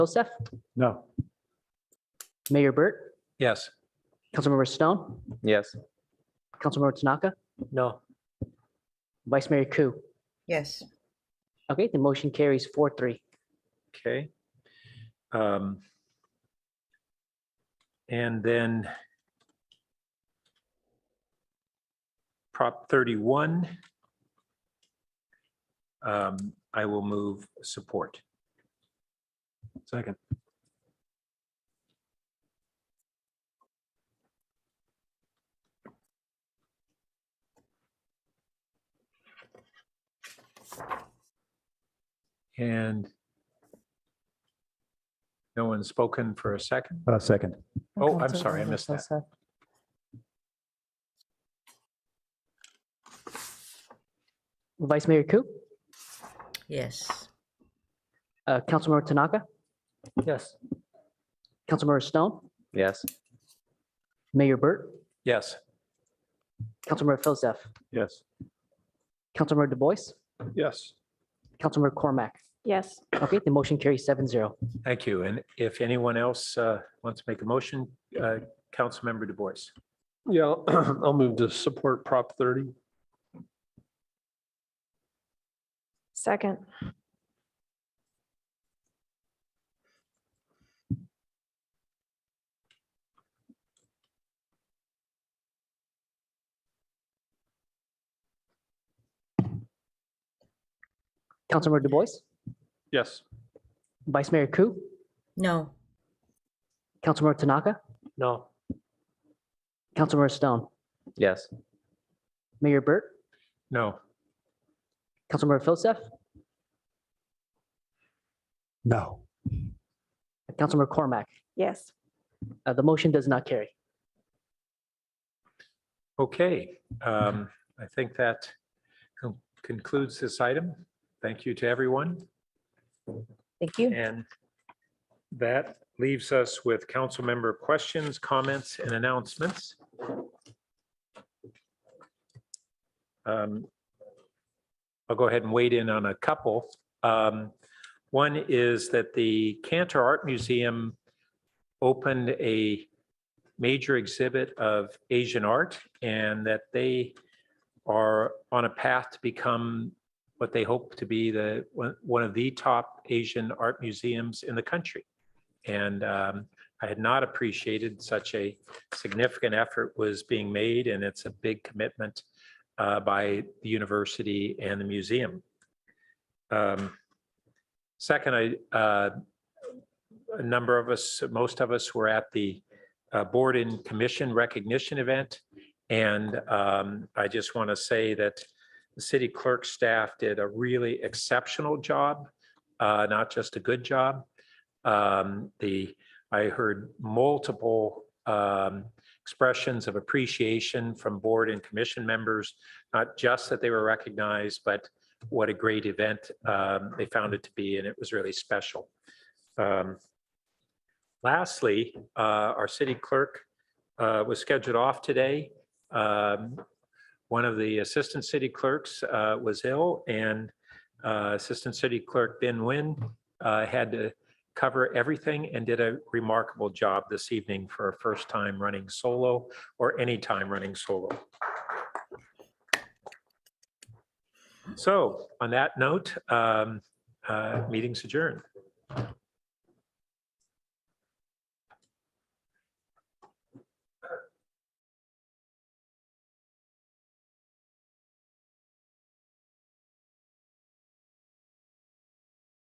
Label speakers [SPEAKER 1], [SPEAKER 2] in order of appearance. [SPEAKER 1] Joseph,
[SPEAKER 2] No.
[SPEAKER 1] Mayor Burt,
[SPEAKER 2] Yes.
[SPEAKER 1] Councilmember Stone,
[SPEAKER 3] Yes.
[SPEAKER 1] Councilmember Tanaka,
[SPEAKER 2] No.
[SPEAKER 1] Vice Mayor Ku.
[SPEAKER 4] yes,
[SPEAKER 1] Okay, the motion carries four three.
[SPEAKER 2] Okay. Um, And then Prop 31. um, I will move support. Second. And no one's spoken for a second.
[SPEAKER 5] Uh, second.
[SPEAKER 2] Oh, I'm sorry, I missed that.
[SPEAKER 1] Vice Mayor Ku,
[SPEAKER 4] yes,
[SPEAKER 1] uh, Councilmember Tanaka,
[SPEAKER 2] Yes.
[SPEAKER 1] Councilmember Stone,
[SPEAKER 3] Yes.
[SPEAKER 1] Mayor Burt,
[SPEAKER 2] Yes.
[SPEAKER 1] Councilmember Joseph,
[SPEAKER 5] Yes.
[SPEAKER 1] Councilmember DuBois,
[SPEAKER 2] Yes.
[SPEAKER 1] Councilmember Cormac.
[SPEAKER 6] yes.
[SPEAKER 1] Okay, the motion carries seven zero.
[SPEAKER 2] Thank you. And if anyone else uh, wants to make a motion, uh, Councilmember Du Bois.
[SPEAKER 7] Yeah, I'll- I'll move to support Prop 30.
[SPEAKER 6] Second,
[SPEAKER 1] Councilmember DuBois,
[SPEAKER 7] Yes.
[SPEAKER 1] Vice Mayor Ku,
[SPEAKER 4] no,
[SPEAKER 1] Councilmember Tanaka,
[SPEAKER 2] No.
[SPEAKER 1] Councilmember Stone,
[SPEAKER 3] Yes.
[SPEAKER 1] Mayor Burt,
[SPEAKER 2] No.
[SPEAKER 1] Councilmember Joseph,
[SPEAKER 5] No.
[SPEAKER 1] Councilmember Cormac.
[SPEAKER 6] yes.
[SPEAKER 1] Uh, The motion does not carry.
[SPEAKER 2] Okay. um, I think that con- concludes this item. Thank you to everyone.
[SPEAKER 4] thank you.
[SPEAKER 2] And that leaves us with council member questions, comments, and announcements. Um, I'll go ahead and wade in on a couple. Um, One is that the Cantor Art Museum opened a major exhibit of Asian art and that they are on a path to become what they hope to be the one, one of the top Asian art museums in the country. And um, I had not appreciated such a significant effort was being made, and it's a big commitment uh, by the university and the museum. Um, second, I uh, a number of us, most of us, were at the uh, board and commission recognition event, and um, I just want to say that the city clerk staff did a really exceptional job, uh, not just a good job. Um, The, I heard multiple um, expressions of appreciation from board and commission members, not just that they were recognized, but what a great event um, they found it to be, and it was really special. Um, Lastly, uh, our city clerk uh, was scheduled off today. Um, one of the assistant city clerks uh, was ill and uh, Assistant City Clerk Ben Nguyen uh, had to cover everything and did a remarkable job this evening for her first time running solo or any time running solo. So on that note, um, uh, meeting's adjourned.